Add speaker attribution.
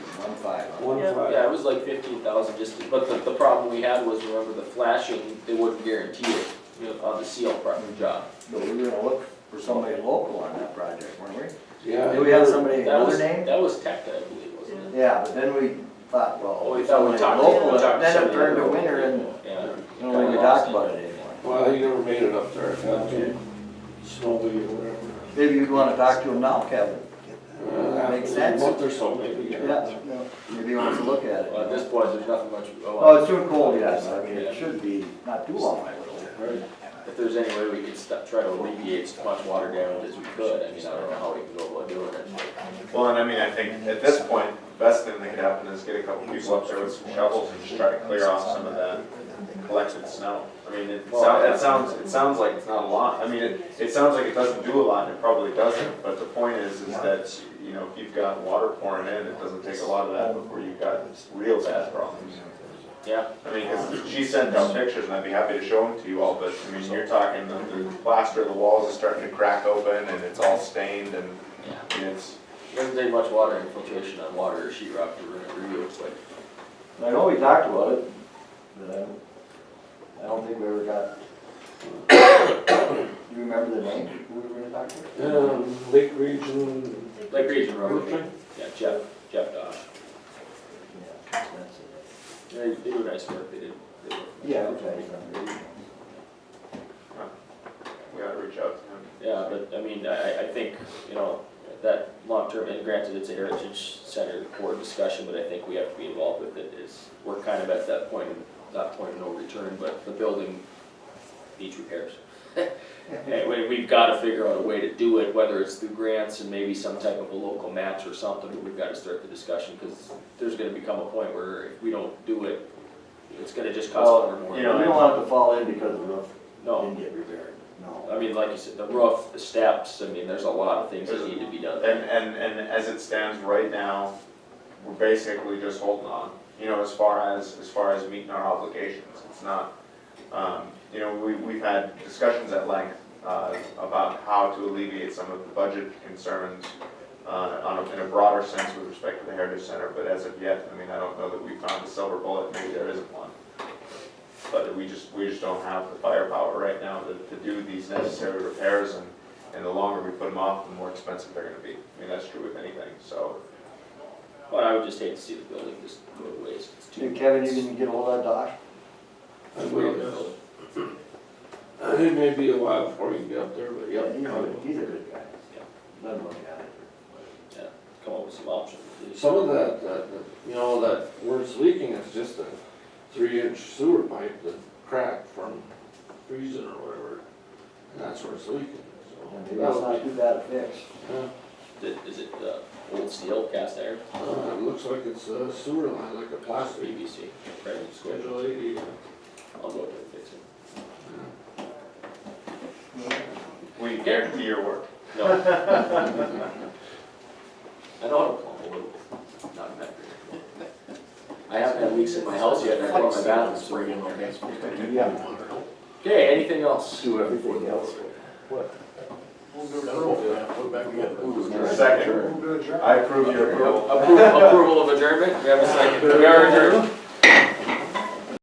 Speaker 1: Yeah,
Speaker 2: twenty-five?
Speaker 1: Oh, yeah, it was like fifteen thousand, just, to- but the, the problem we had was, remember the flashing, they wouldn't guarantee it, you know, on the seal part
Speaker 3: Mm-hmm.
Speaker 1: of the job.
Speaker 3: But we were gonna look for somebody local on that project, weren't we?
Speaker 2: Yeah.
Speaker 3: Did we have somebody,
Speaker 1: That
Speaker 3: another
Speaker 1: was,
Speaker 3: name?
Speaker 1: that was Tech, I believe, wasn't it?
Speaker 3: Yeah, but then we thought, well.
Speaker 1: Oh, we thought we
Speaker 3: somebody
Speaker 1: talked.
Speaker 3: local,
Speaker 1: we talked to
Speaker 3: Then it
Speaker 1: somebody
Speaker 3: turned to
Speaker 1: local.
Speaker 3: winter and,
Speaker 1: Yeah.
Speaker 3: you know, we
Speaker 1: Kinda
Speaker 3: talked
Speaker 1: lost
Speaker 3: about it anymore.
Speaker 2: Well, he never made it up there, got to snowmobile or whatever.
Speaker 3: Maybe you'd wanna talk to him now, Kevin.
Speaker 2: Uh, after
Speaker 3: Makes sense.
Speaker 2: A month or so, maybe.
Speaker 3: Yeah, maybe he wants to look at it.
Speaker 1: Well, at this point, there's nothing much,
Speaker 3: Oh,
Speaker 1: oh,
Speaker 3: it's too cold, yes, I mean, it should be not too long, I would hope.
Speaker 2: Right.
Speaker 1: if there's any way we could stop, try to alleviate as much water damage as we could, I mean, I don't know how we can go about doing it.
Speaker 4: Well, and I mean, I think at this point, the best thing that could happen is get a couple people up there with some shovels and just try to clear off some of that collected snow. I mean, it sounds, it sounds, it sounds like it's not a lot, I mean, it, it sounds like it doesn't do a lot, and it probably doesn't, but the point is, is that, you know, if you've got water pouring in, it doesn't take a lot of that before you've got real bad problems.
Speaker 1: Yeah,
Speaker 4: I mean, 'cause she sent out pictures, and I'd be happy to show them to you all, but, I mean, you're talking, the, the plaster of the walls is starting to crack open, and it's all stained, and
Speaker 1: yeah.
Speaker 4: and it's,
Speaker 1: It Doesn't take much water infiltration on water or sheet rock to ruin it real quick.
Speaker 3: I know we talked about it, but I don't, I don't think we ever got. Do you remember the name, who we were talking to?
Speaker 2: Um, Lake Region,
Speaker 1: Like region road,
Speaker 2: Okay.
Speaker 1: yeah, Jeff, Jeff Dosh,
Speaker 3: Yeah, that's it.
Speaker 1: they, they do nice work, they did. they did-
Speaker 3: Yeah, okay, I remember.
Speaker 4: we ought to reach out to him.
Speaker 1: Yeah, but I mean, I, I think, you know, that long-term, and granted, it's a heritage center board discussion, but I think we have to be involved with it is, we're kind of at that point, that point of no return, but the building needs repairs. And we, we've gotta figure out a way to do it, whether it's through grants and maybe some type of a local match or something, but we've gotta start the discussion, cause there's gonna become a point where if we don't do it, it's gonna just cost
Speaker 3: Well,
Speaker 1: more and more.
Speaker 3: You know, we don't want it to fall in because the roof
Speaker 1: No.
Speaker 3: didn't get repaired, no.
Speaker 1: I mean, like you said, the roof, the steps, I mean, there's a lot of things that need to be done.
Speaker 4: And, and, and as it stands right now, we're basically just holding on, you know, as far as, as far as meeting our obligations, it's not, um, you know, we, we've had discussions at length, uh, about how to alleviate some of the budget concerns, uh, on a, in a broader sense with respect to the Heritage Center, but as of yet, I mean, I don't know that we found a silver bullet, maybe there isn't one. But we just, we just don't have the firepower right now to, to do these necessary repairs and and the longer we put them off, the more expensive they're gonna be. I mean, that's true with anything, so.
Speaker 1: But I would just hate to see the building just go to waste. It's too.
Speaker 3: Dude, Kevin, you didn't get hold of that Dosh?
Speaker 2: I will. Uh, It may be a while before you get up there, but yeah.
Speaker 3: He's a, he's a good guy.
Speaker 1: Yeah.
Speaker 3: Doesn't look at it.
Speaker 1: Come up with some options.
Speaker 2: Some of that, that, that, you know, that where it's leaking is just a three-inch sewer pipe that cracked from freezing or whatever. And that's where it's leaking, so.
Speaker 3: Maybe it's not too bad a fix.
Speaker 2: Yeah.
Speaker 1: Is it- Is it uh, old steel cast iron?
Speaker 2: Uh, it looks like it's a sewer line, like a plastic,
Speaker 1: PVC. Right, it's good.
Speaker 2: schedule eighty.
Speaker 1: I'll go up there and fix it.
Speaker 4: We guarantee your work.
Speaker 1: No. I know how to plumb a little bit. Not that great. I haven't had leaks in my house yet. and I plumbed my bathroom spring in there.
Speaker 3: Yeah,
Speaker 1: Okay, anything else?
Speaker 3: do everything else.
Speaker 4: Second, I approve your approval.
Speaker 1: Approval, approval of adjournment? We have a second. We are adjourned.